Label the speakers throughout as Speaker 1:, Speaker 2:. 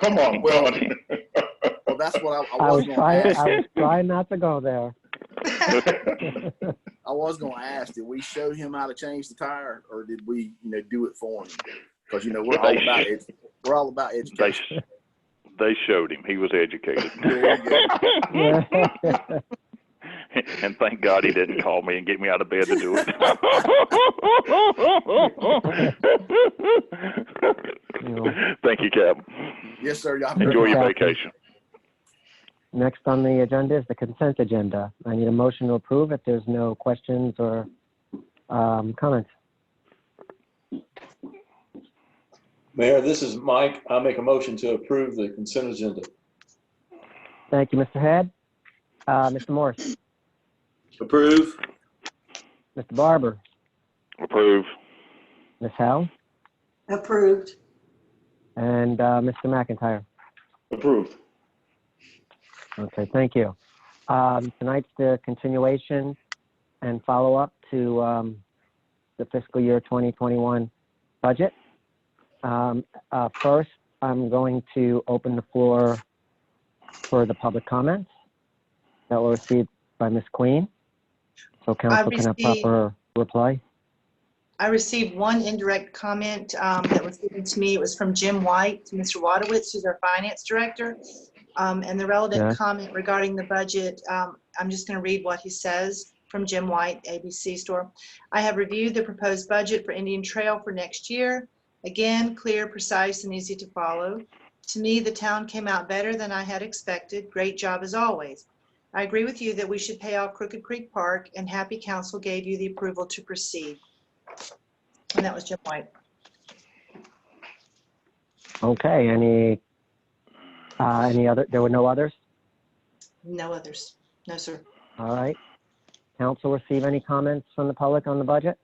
Speaker 1: Come on,
Speaker 2: Well-
Speaker 1: come on.
Speaker 2: Well, that's what I, I
Speaker 3: I
Speaker 2: was
Speaker 3: was
Speaker 2: going
Speaker 3: trying,
Speaker 2: to ask.
Speaker 3: I was trying not to go there.
Speaker 2: I was going to ask, did we show him how to change the tire or did we, you know, do it for him? Because, you know, we're all about it. We're all about
Speaker 4: They,
Speaker 2: education.
Speaker 4: sh- they showed him. He was educated.
Speaker 2: There you go.
Speaker 4: and thank God he didn't call me and get me out of bed to do it. thank you, Cap.
Speaker 2: Yes, sir. Y'all
Speaker 4: Enjoy your
Speaker 3: Captain.
Speaker 4: vacation.
Speaker 3: Next on the agenda is the consent agenda. I need a motion to approve if there's no questions or um, comments.
Speaker 5: Mayor, this is Mike. I make a motion to approve the consent agenda.
Speaker 3: Thank you, Mr. Head. Uh, Mr. Morris,
Speaker 5: Approve.
Speaker 3: Mr. Barber,
Speaker 4: Approve.
Speaker 3: Ms. Howe,
Speaker 6: Approved.
Speaker 3: and uh, Mr. McIntyre.
Speaker 1: Approved.
Speaker 3: Okay, thank you. Um, Tonight's the continuation and follow-up to um, the fiscal year 2021 budget. Um, uh, First, I'm going to open the floor for the public comments that were received by Ms. Queen. So council can have
Speaker 6: received-
Speaker 3: proper reply.
Speaker 6: I received one indirect comment um, that was given to me. It was from Jim White, to Mr. Wadowitz, who's our finance director. Um, And the
Speaker 3: Yeah.
Speaker 6: relevant comment regarding the budget, um, I'm just going to read what he says from Jim White, ABC Store. I have reviewed the proposed budget for Indian Trail for next year. Again, clear, precise, and easy to follow. To me, the town came out better than I had expected. Great job as always. I agree with you that we should pay off Crooked Creek Park, and happy council gave you the approval to proceed. And that was Jim White.
Speaker 3: Okay, any, uh, any other, there were no others?
Speaker 6: No others. No, sir.
Speaker 3: All right. Council receive any comments from the public on the budget?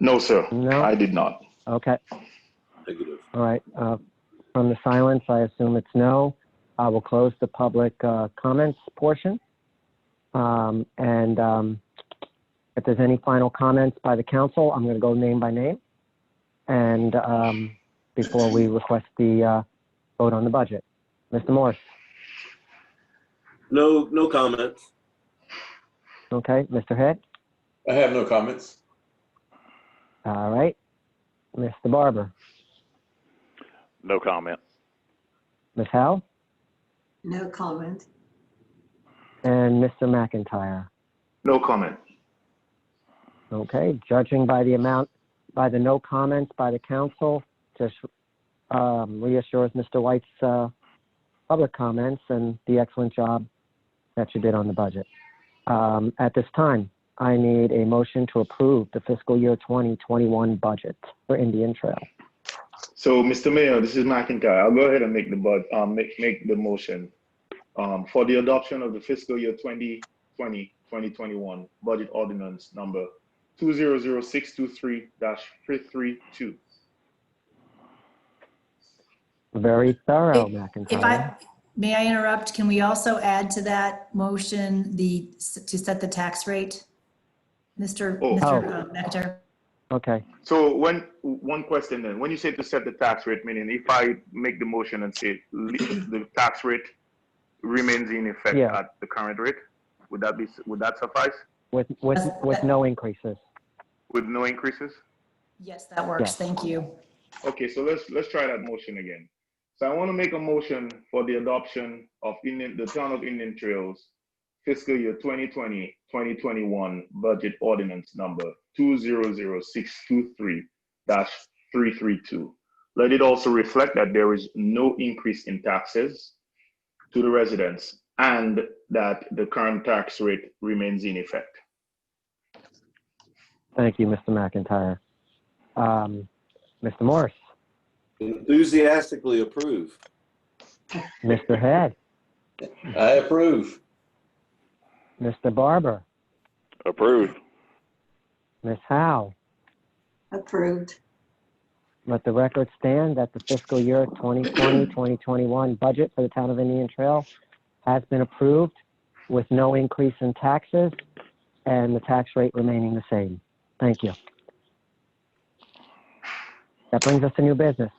Speaker 1: No, sir.
Speaker 3: No?
Speaker 1: I did not.
Speaker 3: Okay,
Speaker 5: Negative.
Speaker 3: all right. Uh, From the silence, I assume it's no. I will close the public uh, comments portion. Um, And um, if there's any final comments by the council, I'm going to go name by name. And um, before we request the uh, vote on the budget. Mr. Morse,
Speaker 7: No, no comments.
Speaker 3: okay, Mr. Head,
Speaker 5: I have no comments.
Speaker 3: all right. Mr. Barber,
Speaker 4: No comment.
Speaker 3: Ms. Howe,
Speaker 6: No comment.
Speaker 3: and Mr. McIntyre.
Speaker 1: No comment.
Speaker 3: Okay, judging by the amount, by the no comments by the council, just um, reassures Mr. White's uh, public comments and the excellent job that you did on the budget. Um, At this time, I need a motion to approve the fiscal year 2021 budget for Indian Trail.
Speaker 1: So, Mr. Mayor, this is McIntyre. I'll go ahead and make the bud, um, make, make the motion um, for the adoption of the fiscal year 2020, 2021 budget ordinance number 200623-332.
Speaker 3: Very thorough,
Speaker 8: If- If
Speaker 3: McIntyre.
Speaker 8: I, may I interrupt? Can we also add to that motion the, to set the tax rate? Mr.
Speaker 1: Oh.
Speaker 8: Mr. uh, Mector?
Speaker 3: Okay,
Speaker 1: So when, one question then, when you say to set the tax rate, meaning if I make the motion and say le- the tax rate remains in effect
Speaker 3: Yeah.
Speaker 1: at the current rate, would that be, would that suffice
Speaker 3: with, with, with no increases.
Speaker 1: with no increases?
Speaker 8: Yes, that works. Thank you.
Speaker 1: Okay, so let's, let's try that motion again. So I want to make a motion for the adoption of Indian, the Town of Indian Trails fiscal year 2020, 2021 budget ordinance number 200623-332. Let it also reflect that there is no increase in taxes to the residents and that the current tax rate remains in effect.
Speaker 3: Thank you, Mr. McIntyre. Um, Mr. Morse,
Speaker 5: Enthusiastically approve.
Speaker 3: Mr. Head,
Speaker 5: I approve.
Speaker 3: Mr. Barber,
Speaker 4: Approved.
Speaker 3: Ms. Howe,
Speaker 6: Approved.
Speaker 3: Let the record stand that the fiscal year 2020, 2021 budget for the town of Indian Trail has been approved with no increase in taxes and the tax rate remaining the same. Thank you. That brings us to new business.